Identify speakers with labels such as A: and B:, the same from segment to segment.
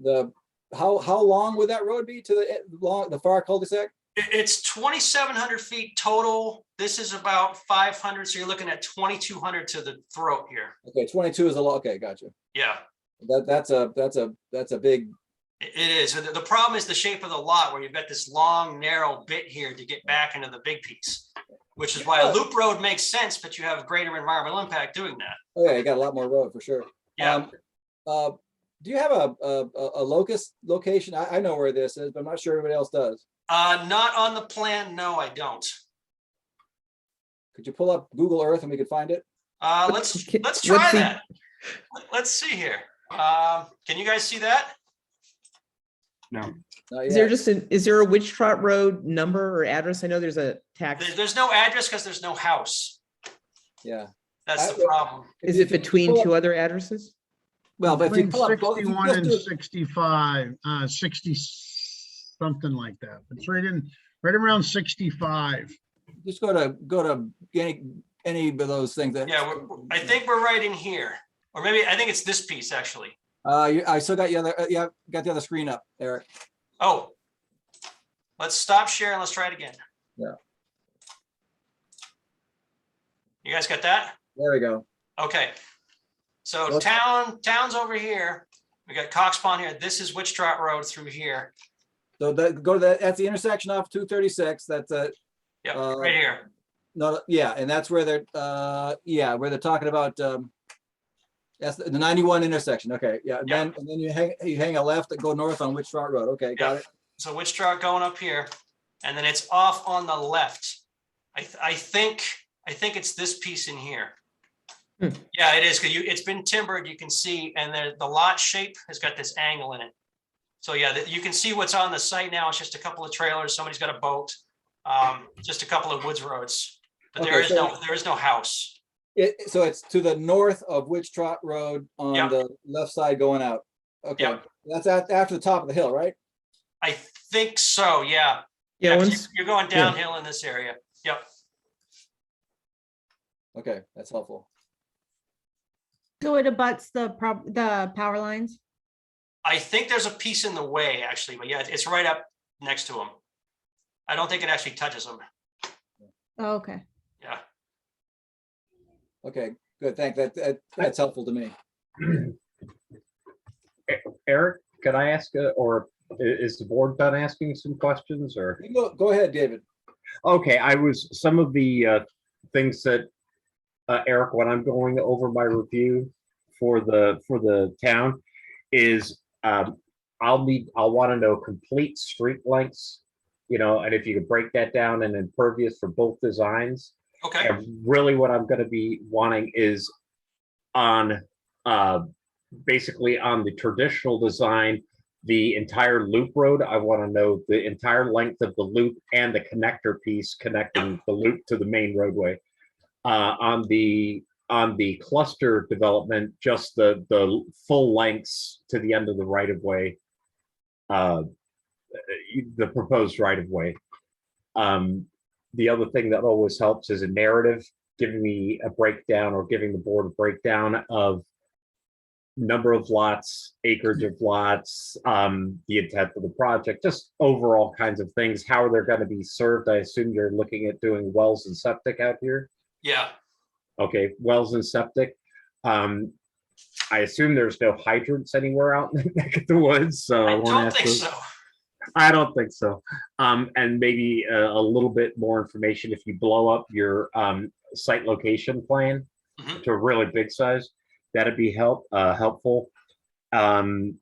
A: the, how, how long would that road be to the, eh, long, the far cul-de-sac?
B: It- It's twenty-seven hundred feet total. This is about five hundred, so you're looking at twenty-two hundred to the throat here.
A: Okay, twenty-two is a lot, okay, gotcha.
B: Yeah,
A: That, that's a, that's a, that's a big,
B: i- it is. The, the problem is the shape of the lot where you've got this long, narrow bit here to get back into the big piece. Which is why
A: Yeah.
B: a loop road makes sense, but you have greater environmental impact doing that.
A: oh yeah, you got a lot more road for sure.
B: Yeah,
A: Um, Uh, do you have a, a, a a locus location? I, I know where this is, but I'm not sure everybody else does.
B: uh, not on the plan. No, I don't.
A: Could you pull up Google Earth and we could find it?
B: Uh, let's,
C: Okay,
B: let's try
C: let's see.
B: that. Let's see here. Um, can you guys see that?
A: Not
C: Is there
A: yet.
C: just an, is there a Witch Trot Road number or address? I know there's a
B: There-
C: tax.
B: There's no address because there's no house.
A: Yeah.
B: That's
A: I-
B: the problem.
A: If
C: Is
A: you
C: it
A: could
C: between
A: pull
C: two other addresses?
A: Well, but if you
D: Between
A: pull up. both- if you
D: 61
A: just
D: and
A: do-
D: 65, uh, 60, something like that. It's right in, right around 65.
A: Just go to, go to any, any of those things that.
B: Yeah, we're- we're- I think we're right in here, or maybe, I think it's this piece, actually.
A: Uh, you- I still got the other, uh, yeah, got the other screen up, Eric.
B: Oh. Let's stop sharing, let's try it again.
A: Yeah.
B: You guys got that?
A: There we go.
B: Okay. So
A: Look.
B: town, town's over here. We got Cox Pond here. This is Witch Trot Road through here.
A: So that, go to that, that's the intersection off two thirty-six, that's a,
B: Yep,
A: Uh,
B: right here.
A: no, yeah, and that's where they're, uh, yeah, where they're talking about, um, that's the the ninety-one intersection, okay, yeah, and
B: Yeah.
A: then, and then you hang, you hang a left and go north on Witch Trot Road, okay, got
B: Yeah.
A: it?
B: So Witch Trot going up here, and then it's off on the left. I, th- I think, I think it's this piece in here.
C: Hmm.
B: Yeah, it is, because you, it's been timbered, you can see, and the, the lot shape has got this angle in it. So yeah, that- you can see what's on the site now, it's just a couple of trailers, somebody's got a boat, um, just a couple of woods roads. But there
A: Okay,
B: is no, there is no house.
A: It, so it's to the north of Witch Trot Road on
B: Yeah.
A: the left side going out. Okay,
B: Yeah.
A: that's at, after the top of the hill, right?
B: I think so, yeah.
C: Yeah,
B: 'cause
C: once,
B: You're going
C: yeah.
B: downhill in this area,
A: Okay, that's helpful.
E: So it abuts the prob, the power lines?
B: I think there's a piece in the way, actually, but yeah, it's right up next to him. I don't think it actually touches him.
E: Oh, Okay.
B: Yeah.
A: Okay, good, thank, that, that, that's helpful to me.
F: Eric, can I ask, uh, or i- is the board done asking some questions or?
A: You Go, go ahead, David.
F: Okay, I was, some of the uh, things that, uh, Eric, when I'm going over my review for the, for the town is um, I'll need, I'll want to know complete street lengths, you know, and if you could break that down and impervious for both designs.
B: Okay.
F: And really what I'm gonna be wanting is on, uh, basically on the traditional design, the entire loop road, I wanna know the entire length of the loop and the connector piece connecting the loop to the main roadway. Uh, on the, on the cluster development, just the, the full lengths to the end of the right of way. Uh, the proposed right of way. Um, the other thing that always helps is a narrative, giving me a breakdown or giving the board a breakdown of number of lots, acreage of lots, um, the intent of the project, just overall kinds of things. How are they going to be served? I assume you're looking at doing wells and septic out here.
B: Yeah.
F: Okay, wells and septic. Um, I assume there's no hydrants anywhere out in the neck of the woods, so I
B: I
F: won't
B: don't
F: ask.
B: think
F: those.
B: so.
F: I don't think so. Um, and maybe a, a little bit more information if you blow up your um, site location plan
B: Mhm.
F: to a really big size, that'd be help uh, helpful. Um,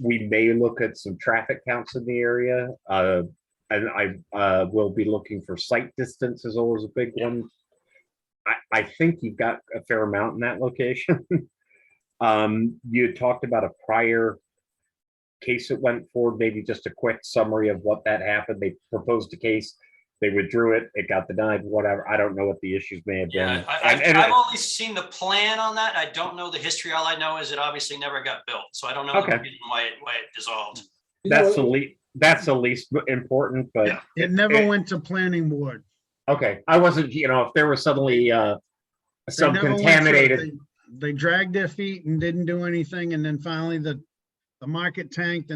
F: we may look at some traffic counts in the area. Uh, and I uh, will be looking for site distance is always a big one. I, I think you've got a fair amount in that location. um, you had talked about a prior case that went forward, maybe just a quick summary of what that happened. They proposed a case, they withdrew it, it got denied, whatever. I don't know what the issues may have
B: Yeah.
F: been.
B: I,
F: And- and
B: I've,
F: I-
B: I've only seen the plan on that. I don't know the history. All I know is it obviously never got built. So I don't know the
F: Okay.
B: reason why it, why it dissolved.
A: You know
F: That's
A: what-
F: the least, that's the least important, but,
B: Yeah.
D: It
F: eh.
D: never went to planning board.
F: okay, I wasn't, you know, if there was suddenly, uh,
D: They
F: some
D: never went to it.
F: contaminated,
D: They- They dragged their feet and didn't do anything, and then finally the the market tanked